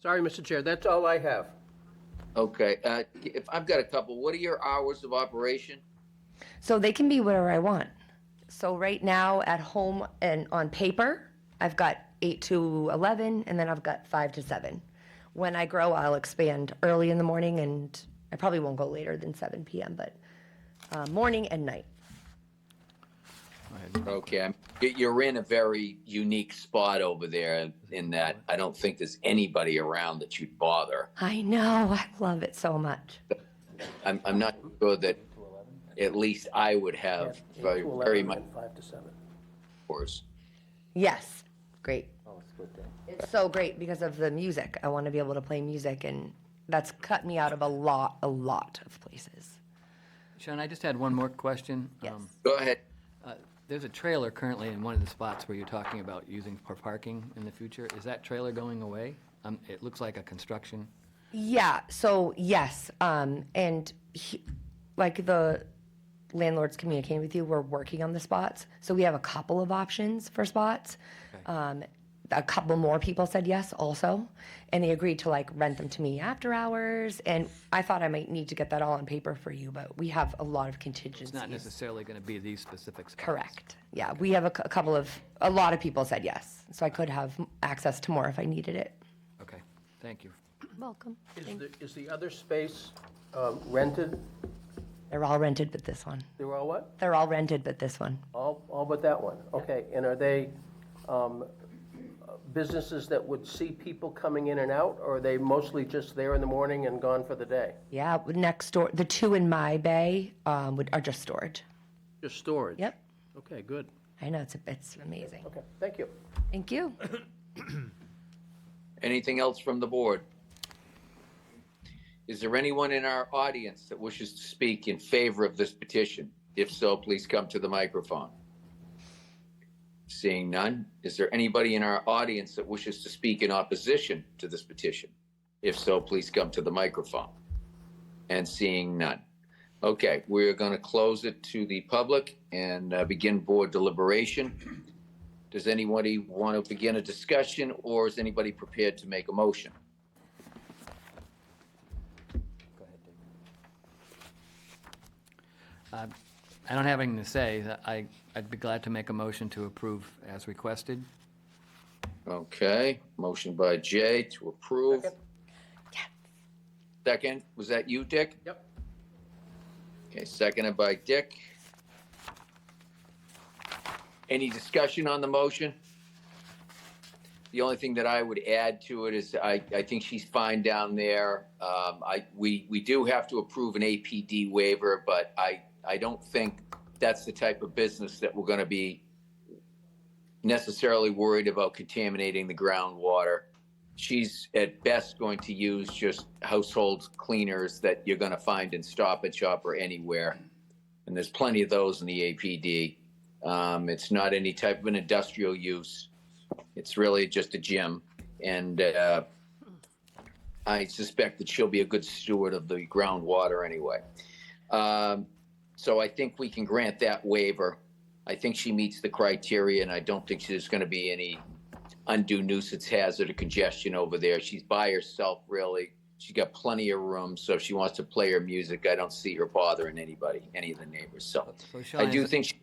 Sorry, Mr. Chair, that's all I have. Okay, uh, if, I've got a couple, what are your hours of operation? So they can be whatever I want. So right now at home and on paper, I've got 8 to 11 and then I've got 5 to 7. When I grow, I'll expand early in the morning and I probably won't go later than 7 p.m., but uh, morning and night. Okay, I'm- you- you're in a very unique spot over there in that I don't think there's anybody around that you'd bother. I know, I love it so much. I'm, I'm not sure that at least I would have very, very much Five to seven. hours. Yes, great. It's so great because of the music. I want to be able to play music and that's cut me out of a lot, a lot of places. Sean, I just had one more question. Yes. Um, Go ahead. uh, There's a trailer currently in one of the spots where you're talking about using for parking in the future. Is that trailer going away? Um, It looks like a construction. Yeah, so yes, um, and he, like the landlord's communicating with you, we're working on the spots. So we have a couple of options for spots. Um, a couple more people said yes also, and they agreed to like rent them to me after hours. And I thought I might need to get that all on paper for you, but we have a lot of It's not contingencies. necessarily going to be these specific spots. Correct. Yeah, we have a, cou- a couple of, a lot of people said yes. So I could have access to more if I needed it. Okay, thank you. Welcome. Is the, is the other space um, rented? They're all rented but this one. They were all what? They're all rented but this one. All, all but that one? Okay, and are they um, businesses that would see people coming in and out, or are they mostly just there in the morning and gone for the day? Yeah, w- next door, the two in my bay um, would, are just storage. Just storage? Yep. Okay, good. I know, it's, a- it's amazing. Okay, thank you. Thank you. Anything else from the board? Is there anyone in our audience that wishes to speak in favor of this petition? If so, please come to the microphone. Seeing none, is there anybody in our audience that wishes to speak in opposition to this petition? If so, please come to the microphone. And seeing none. Okay, we're going to close it to the public and uh, begin board deliberation. Does anybody want to begin a discussion or is anybody prepared to make a motion? I don't have anything to say. I, I'd be glad to make a motion to approve as requested. Okay, motion by Jay to approve. Second, was that you, Dick? Yep. Okay, seconded by Dick. Any discussion on the motion? The only thing that I would add to it is I, I think she's fine down there. Um, I, we, we do have to approve an APD waiver, but I, I don't think that's the type of business that we're gonna be necessarily worried about contaminating the groundwater. She's at best going to use just household cleaners that you're gonna find in Stop and Shop or anywhere. And there's plenty of those in the APD. Um, it's not any type of an industrial use. It's really just a gym. And, uh, I suspect that she'll be a good steward of the groundwater anyway. Um, so I think we can grant that waiver. I think she meets the criteria, and I don't think there's going to be any undue nuisance hazard or congestion over there. She's by herself, really. She's got plenty of room, so if she wants to play her music, I don't see her bothering anybody, any of the neighbors. So So Sean, I do is- think she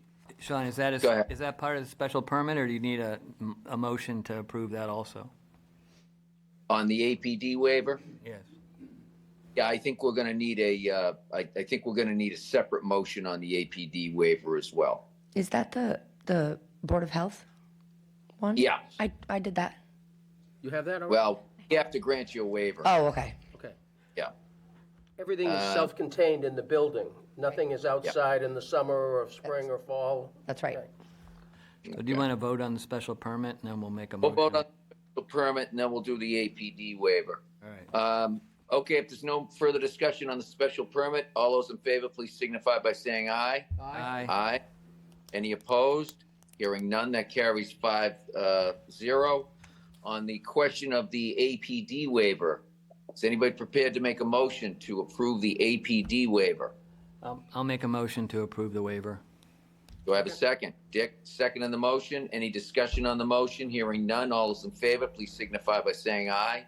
Sean, is that, a- Go ahead. is that part of the special permit, or do you need a, a motion to approve that also? on the APD waiver. Yes. Yeah, I think we're going to need a. Uh, I, I think we're going to need a separate motion on the APD waiver as well. Is that the, the Board of Health one? Yeah. I, I did that. You have that all right? Well, we have to grant you a waiver. Oh, okay. Okay. Yeah. Everything uh, is self-contained in the building. Nothing is outside in the summer or spring or fall. That's right. So do you want to vote on the special permit, and then we'll make a We'll motion? vote on the permit and then we'll do the APD waiver. All right. Um, okay, if there's no further discussion on the special permit, all those in favor, please signify by saying aye. Aye. Aye. Any opposed? Hearing none, that carries five, uh, zero. On the question of the APD waiver, is anybody prepared to make a motion to approve the APD waiver? I'll I'll make a motion to approve the waiver. Do I have a second? Dick, second on the motion. Any discussion on the motion? Hearing none, all those in favor, please signify by saying aye.